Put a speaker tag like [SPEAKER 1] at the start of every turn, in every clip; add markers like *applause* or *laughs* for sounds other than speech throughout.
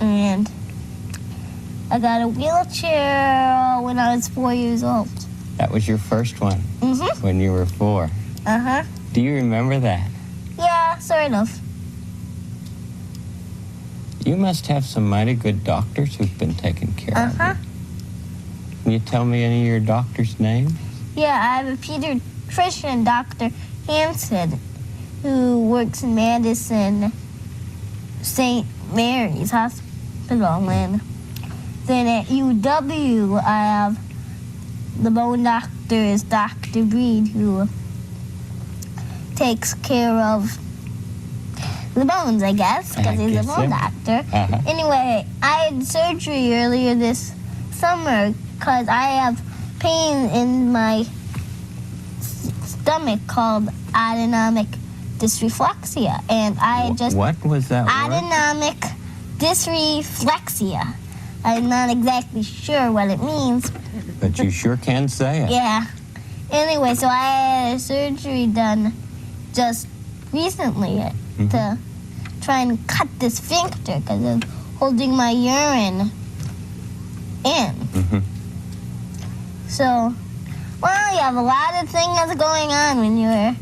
[SPEAKER 1] and I got a wheelchair when I was four years old.
[SPEAKER 2] That was your first one
[SPEAKER 1] Mm-hmm.
[SPEAKER 2] when you were four.
[SPEAKER 1] Uh huh.
[SPEAKER 2] Do you remember that?
[SPEAKER 1] Yeah, sort of.
[SPEAKER 2] You must have some mighty good doctors who've been taking care
[SPEAKER 1] Uh
[SPEAKER 2] of
[SPEAKER 1] huh.
[SPEAKER 2] you. Can you tell me any of your doctors' names?
[SPEAKER 1] Yeah, I have a pediatrician, Dr. Hansen, who works in Madison St. Mary's Hospital. And then at UW, I have the bone doctor is Dr. Breed, who takes care of the bones, I guess,
[SPEAKER 2] I
[SPEAKER 1] because he's a
[SPEAKER 2] guess
[SPEAKER 1] bone
[SPEAKER 2] so.
[SPEAKER 1] doctor.
[SPEAKER 2] Uh-huh.
[SPEAKER 1] Anyway, I had surgery earlier this summer because I have pain in my s- stomach called autonomic dysreflexia, and I
[SPEAKER 2] Wh-
[SPEAKER 1] just
[SPEAKER 2] what was that word?
[SPEAKER 1] autonomic dysreflexia. I'm not exactly sure what it means.
[SPEAKER 2] But you sure can say it.
[SPEAKER 1] Yeah. Anyway, so I had surgery done just recently
[SPEAKER 2] Mm-hmm,
[SPEAKER 1] to try and cut the sphincter because I'm holding my urine in.
[SPEAKER 2] Mhm.
[SPEAKER 1] So, well, you have a lot of things going on when you're.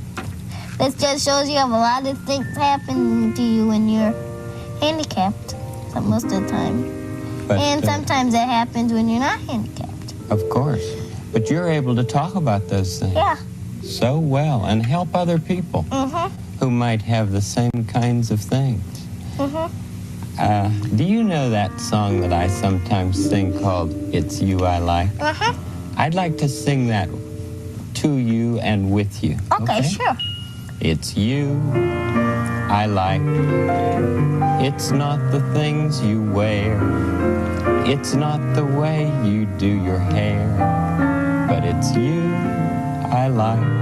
[SPEAKER 1] This just shows you have a lot of things happen to you when you're handicapped so- most of the time.
[SPEAKER 2] But,
[SPEAKER 1] and
[SPEAKER 2] uh,
[SPEAKER 1] sometimes that happens when you're not handicapped.
[SPEAKER 2] of course. But you're able to talk about those things
[SPEAKER 1] Yeah.
[SPEAKER 2] so well and help other people
[SPEAKER 1] Mm
[SPEAKER 2] who might have the same kinds of things.
[SPEAKER 1] hmm. Mm hmm.
[SPEAKER 2] Uh, do you know that song that I sometimes sing called It's You I Like?
[SPEAKER 1] Uh huh.
[SPEAKER 2] I'd like to sing that to you and with you.
[SPEAKER 1] Okay, sure.
[SPEAKER 2] It's you I like. It's not the things you wear. It's not the way you do your hair. But it's you I like.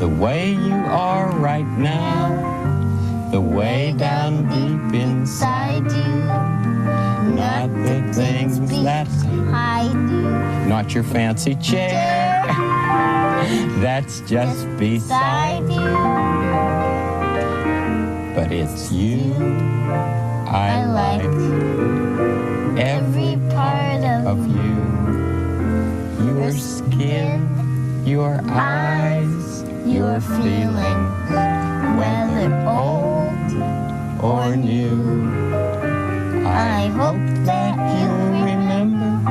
[SPEAKER 2] The way you are right now. The way down deep inside.
[SPEAKER 1] Inside you,
[SPEAKER 2] Not the things that.
[SPEAKER 1] hide you.
[SPEAKER 2] Not your fancy chair. That's just beside.
[SPEAKER 1] Beside you,
[SPEAKER 2] But it's you I
[SPEAKER 1] I
[SPEAKER 2] like.
[SPEAKER 1] like every
[SPEAKER 2] Every
[SPEAKER 1] part
[SPEAKER 2] of
[SPEAKER 1] of
[SPEAKER 2] you. Your
[SPEAKER 1] your
[SPEAKER 2] skin, your eyes, your
[SPEAKER 1] your
[SPEAKER 2] feelings,
[SPEAKER 1] feelings, whether
[SPEAKER 2] whether
[SPEAKER 1] old
[SPEAKER 2] or new.
[SPEAKER 1] I
[SPEAKER 2] I
[SPEAKER 1] hope that you
[SPEAKER 2] remember,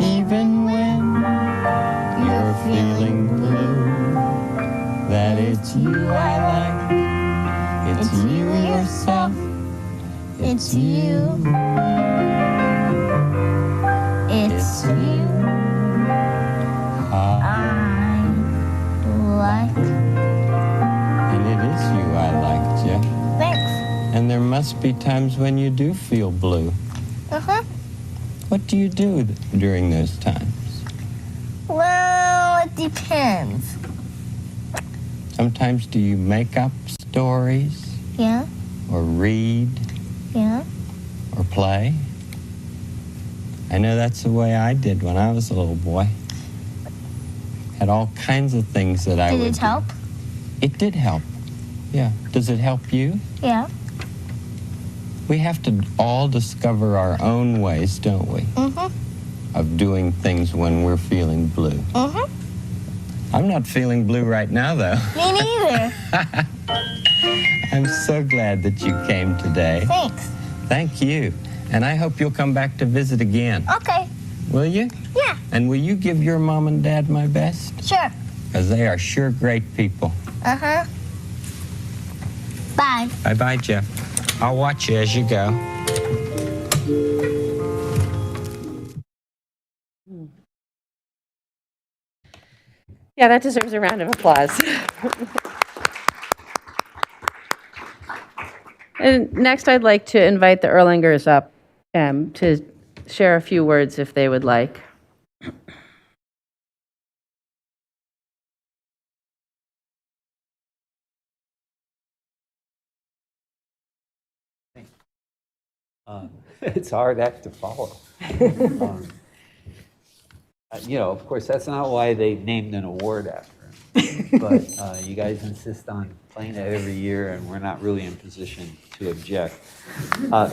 [SPEAKER 2] even when you're feeling blue, that it's you I like. It's
[SPEAKER 1] It's
[SPEAKER 2] you
[SPEAKER 1] you.
[SPEAKER 2] yourself.
[SPEAKER 1] It's you. It's you I
[SPEAKER 2] Ah,
[SPEAKER 1] like.
[SPEAKER 2] and it is you I like, Jeff.
[SPEAKER 1] Thanks.
[SPEAKER 2] And there must be times when you do feel blue.
[SPEAKER 1] Uh huh.
[SPEAKER 2] What do you do th- during those times?
[SPEAKER 1] Well, it depends.
[SPEAKER 2] Sometimes do you make up stories
[SPEAKER 1] Yeah,
[SPEAKER 2] or read
[SPEAKER 1] yeah.
[SPEAKER 2] or play? I know that's the way I did when I was a little boy. Had all kinds of things that I
[SPEAKER 1] Did
[SPEAKER 2] would
[SPEAKER 1] it
[SPEAKER 2] do.
[SPEAKER 1] help?
[SPEAKER 2] It did help. Yeah. Does it help you?
[SPEAKER 1] Yeah.
[SPEAKER 2] We have to all discover our own ways, don't we,
[SPEAKER 1] Mm hmm.
[SPEAKER 2] of doing things when we're feeling blue.
[SPEAKER 1] Mm hmm.
[SPEAKER 2] I'm not feeling blue right now though. *laughs*
[SPEAKER 1] Me neither.
[SPEAKER 2] I'm so glad that you came today.
[SPEAKER 1] Thanks.
[SPEAKER 2] Thank you. And I hope you'll come back to visit again.
[SPEAKER 1] Okay.
[SPEAKER 2] Will you?
[SPEAKER 1] Yeah,
[SPEAKER 2] And will you give your mom and dad my best?
[SPEAKER 1] sure.
[SPEAKER 2] Because they are sure great people.
[SPEAKER 1] Uh huh. Bye.
[SPEAKER 2] Bye bye, Jeff. I'll watch you as you go.
[SPEAKER 3] Yeah, that deserves a round of applause. And next, I'd like to invite the Erlangers up um, to share a few words if they would like.
[SPEAKER 4] *laughs* it's a hard act to follow. Um, uh, You know, of course, that's not why they named an award after him. But uh, you guys insist on playing it every year, and we're not really in position to object. Uh,